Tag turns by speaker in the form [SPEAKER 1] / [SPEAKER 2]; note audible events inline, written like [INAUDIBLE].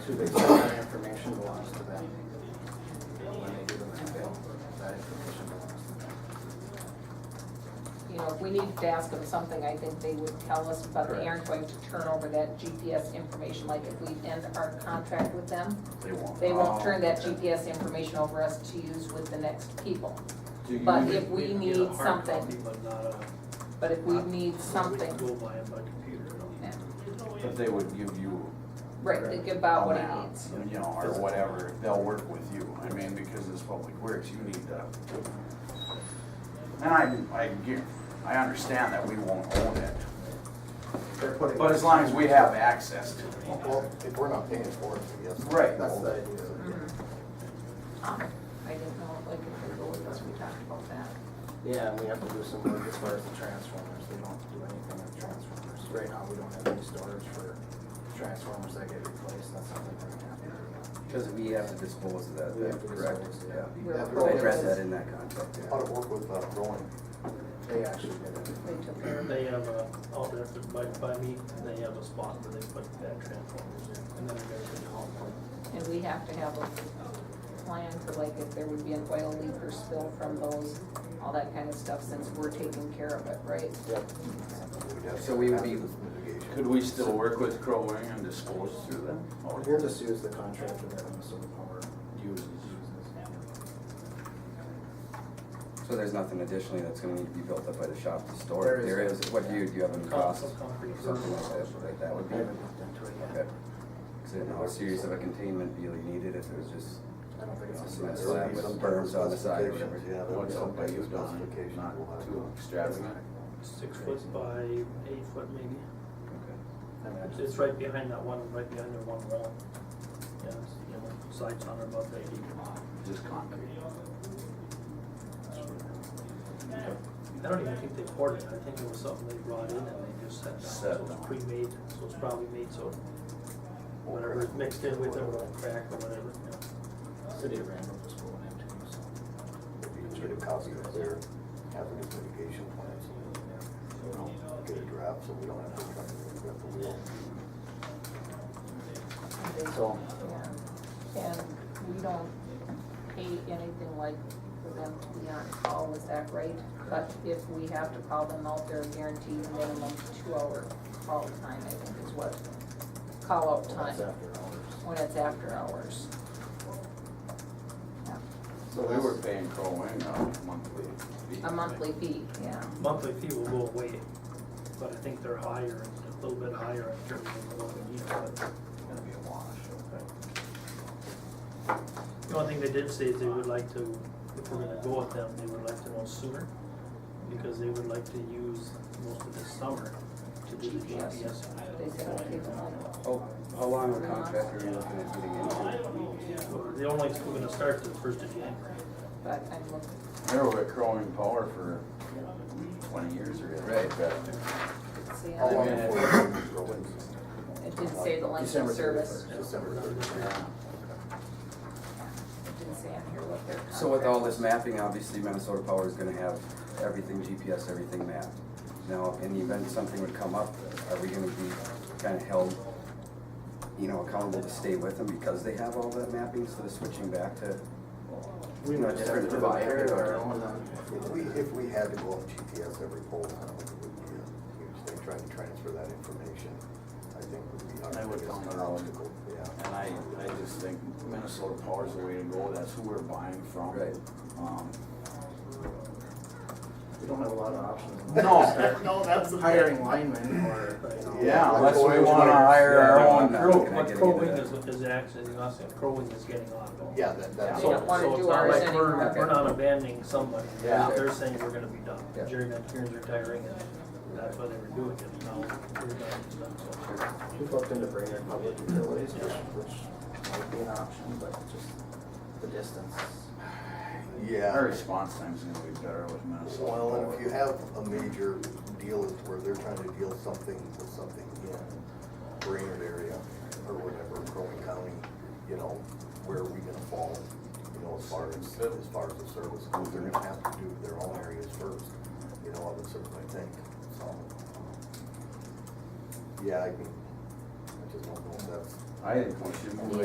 [SPEAKER 1] to the that information belongs to them. When they do the landfill, that information belongs to them.
[SPEAKER 2] you know, if we needed to ask them something, I think they would tell us, but they
[SPEAKER 1] Correct.
[SPEAKER 2] aren't going to turn over that GPS information, like if we end our contract with them,
[SPEAKER 1] They won't.
[SPEAKER 2] they
[SPEAKER 3] Oh.
[SPEAKER 4] Oh,
[SPEAKER 2] won't turn that GPS information over us to use with the next people.
[SPEAKER 4] Do you
[SPEAKER 2] But
[SPEAKER 4] need-
[SPEAKER 2] if we
[SPEAKER 3] can
[SPEAKER 2] need
[SPEAKER 3] get a hard
[SPEAKER 2] something-
[SPEAKER 3] copy, But not a.
[SPEAKER 2] But if we need
[SPEAKER 3] We
[SPEAKER 2] something,
[SPEAKER 3] can go buy it by computer.
[SPEAKER 2] Yeah.
[SPEAKER 4] But they would give you.
[SPEAKER 2] right, think about what
[SPEAKER 4] amount,
[SPEAKER 2] he needs.
[SPEAKER 4] You know, or whatever, they'll work with you, I mean, because it's public works, you need to. And I, I get, I understand that we won't own it,
[SPEAKER 1] They're putting.
[SPEAKER 4] but as long as we have access to it.
[SPEAKER 5] Well, if we're not paying for it, I guess.
[SPEAKER 4] Right.
[SPEAKER 1] That's the idea.
[SPEAKER 2] Mhm. Um, I didn't know, like, if they go with us, we talked about that.
[SPEAKER 1] Yeah, and we have to do some work as far as the transformers, they don't do anything with transformers. Right now, we don't have any storage for transformers that get replaced, that's something we're gonna have to do.
[SPEAKER 6] Because we have to dispose of that,
[SPEAKER 1] We have to
[SPEAKER 6] that's correct,
[SPEAKER 1] dispose, yeah.
[SPEAKER 6] yeah.
[SPEAKER 2] We're
[SPEAKER 1] Yeah,
[SPEAKER 6] They
[SPEAKER 2] pro-
[SPEAKER 6] addressed that in that contract, yeah.
[SPEAKER 5] How to work with uh, growing.
[SPEAKER 1] They actually did it.
[SPEAKER 2] They took care of it.
[SPEAKER 3] They have a, all their, by, by me, they have a spot where they put that transformers in, and then they're gonna haul it.
[SPEAKER 2] And we have to have a plan for like if there would be an oil leak or spill from those, all that kind of stuff, since we're taking care of it, right?
[SPEAKER 6] So we would be-
[SPEAKER 5] Hazardous mitigation.
[SPEAKER 4] Could we still work with Crow Wing and dispose through them? Or
[SPEAKER 1] We'll just use the contractor that Minnesota Power
[SPEAKER 4] uses?
[SPEAKER 1] uses.
[SPEAKER 6] So there's nothing additionally that's gonna need to be built up by the shop to store
[SPEAKER 1] There
[SPEAKER 6] it,
[SPEAKER 1] is
[SPEAKER 6] there
[SPEAKER 1] no-
[SPEAKER 6] is, what do you, do you have any costs?
[SPEAKER 3] Some concrete.
[SPEAKER 6] Something like that, like that would
[SPEAKER 1] I
[SPEAKER 6] be,
[SPEAKER 1] haven't looked into it yet.
[SPEAKER 6] okay. Cause I didn't know how serious of a containment deal you needed if it was just,
[SPEAKER 1] I don't think it's.
[SPEAKER 6] Some
[SPEAKER 5] There
[SPEAKER 1] a
[SPEAKER 6] of
[SPEAKER 5] will
[SPEAKER 6] slab
[SPEAKER 5] be
[SPEAKER 6] with
[SPEAKER 5] some
[SPEAKER 6] berms on the side or
[SPEAKER 5] specifications,
[SPEAKER 6] whatever.
[SPEAKER 5] Yeah, there will be
[SPEAKER 4] What's
[SPEAKER 5] some
[SPEAKER 4] up by you, Don?
[SPEAKER 5] specifications we'll have
[SPEAKER 4] Not too
[SPEAKER 5] to-
[SPEAKER 4] extravagant.
[SPEAKER 3] Six foot by eight foot maybe.
[SPEAKER 1] I mean, I
[SPEAKER 3] It's-
[SPEAKER 1] just-
[SPEAKER 3] It's right behind that one, right behind their one wall. Yeah, it's, you know, sides on about eighty.
[SPEAKER 4] Just concrete.
[SPEAKER 3] I don't even think they poured it, I think it was something they brought in and they just set down,
[SPEAKER 4] Set
[SPEAKER 3] so
[SPEAKER 4] down.
[SPEAKER 3] it's pre-made, so it's probably made so whatever is mixed in with it will crack or whatever, you know.
[SPEAKER 1] City of Randolph is going into, so.
[SPEAKER 5] Maybe Get a copy of their hazardous mitigation plans. You know, Get a draft so we don't have to try to reinvent the wheel.
[SPEAKER 1] So-
[SPEAKER 2] Yeah. And we don't pay anything like for them to be on call, is that right? But if we have to call them out, they're guaranteed minimum two hour call time, I think is what, call out
[SPEAKER 1] That's
[SPEAKER 2] time,
[SPEAKER 1] after hours.
[SPEAKER 2] when it's after hours. Yeah.
[SPEAKER 4] So we were paying Crow Wing a monthly fee.
[SPEAKER 2] A monthly fee, yeah.
[SPEAKER 3] monthly fee will go away, but I think they're higher, a little bit higher in terms of the loan yield, but
[SPEAKER 4] It's gonna be a wash.
[SPEAKER 3] the only thing they did say is they would like to, if we're gonna go with them, they would like to know sooner, because they would like to use most of the summer to do the
[SPEAKER 2] GPS.
[SPEAKER 3] GPS.
[SPEAKER 2] They said it'll take them like
[SPEAKER 6] Oh, how long a contract are you looking at getting into?
[SPEAKER 3] Or They only, we're gonna start the first of January.
[SPEAKER 2] But I'm looking,
[SPEAKER 4] They were with Crow Wing Power for twenty years or something like that.
[SPEAKER 2] to see,
[SPEAKER 5] How long
[SPEAKER 2] how-
[SPEAKER 4] minute.
[SPEAKER 5] before it's growing?
[SPEAKER 2] it didn't say the length
[SPEAKER 1] December
[SPEAKER 2] of service,
[SPEAKER 1] 31st.
[SPEAKER 5] December thirty-first.
[SPEAKER 2] it didn't say on here what their contract.
[SPEAKER 6] So with all this mapping, obviously Minnesota Power is gonna have everything GPS, everything mapped. Now, in the event something would come up, are we gonna be kinda held, you know, accountable to stay with them because they have all that mapping instead of switching back to, you know, a different provider or?
[SPEAKER 1] uh,
[SPEAKER 5] If we, if we had to go on GPS every pole, I don't think it would be a huge thing, trying to transfer that information, I think would be
[SPEAKER 4] I
[SPEAKER 5] our
[SPEAKER 4] would
[SPEAKER 5] biggest
[SPEAKER 4] count it all.
[SPEAKER 5] obstacle, yeah.
[SPEAKER 4] And I, I just think Minnesota Power's the way to go, that's who we're buying from.
[SPEAKER 6] Right.
[SPEAKER 4] Um,
[SPEAKER 5] [LAUGHS]
[SPEAKER 1] We don't have a lot of options. [LAUGHS]
[SPEAKER 4] No.
[SPEAKER 1] No, that's. Hiring linemen or, you know.
[SPEAKER 4] Yeah,
[SPEAKER 5] Like
[SPEAKER 4] that's why we
[SPEAKER 5] Orange
[SPEAKER 4] wanna
[SPEAKER 5] Wire.
[SPEAKER 4] hire our own
[SPEAKER 6] Yeah.
[SPEAKER 4] crew.
[SPEAKER 6] Can I
[SPEAKER 3] But
[SPEAKER 6] get
[SPEAKER 3] Crow
[SPEAKER 6] into
[SPEAKER 3] Wing
[SPEAKER 6] that?
[SPEAKER 3] is, is actually, is not saying- Crow Wing is getting on it.
[SPEAKER 5] Yeah, that, that's.
[SPEAKER 2] They don't wanna
[SPEAKER 3] So- so
[SPEAKER 2] do
[SPEAKER 3] it's not
[SPEAKER 2] ours
[SPEAKER 3] like we're-
[SPEAKER 2] anymore.
[SPEAKER 3] We're not abandoning somebody,
[SPEAKER 4] Yeah.
[SPEAKER 3] they're, they're saying we're gonna be done,
[SPEAKER 6] Yeah.
[SPEAKER 3] Jerry McKeon's retiring, and that's why they were doing it, now we're done, so.
[SPEAKER 1] We've looked into bringing in public utilities, which, which might be an option, but just the distance.
[SPEAKER 4] Our
[SPEAKER 5] Yeah,
[SPEAKER 4] response time's gonna be better with Minnesota
[SPEAKER 5] well, and if you
[SPEAKER 4] Power.
[SPEAKER 5] have a major deal is where they're trying to deal something with something in Brainerd area or whatever, Crow County, you know, where are we gonna fall? You know, as far as, as far as the service, goes? they're gonna have to do their own areas first, you know, I would certainly think, so. Yeah, I mean, I just don't know if that's
[SPEAKER 4] I think we should move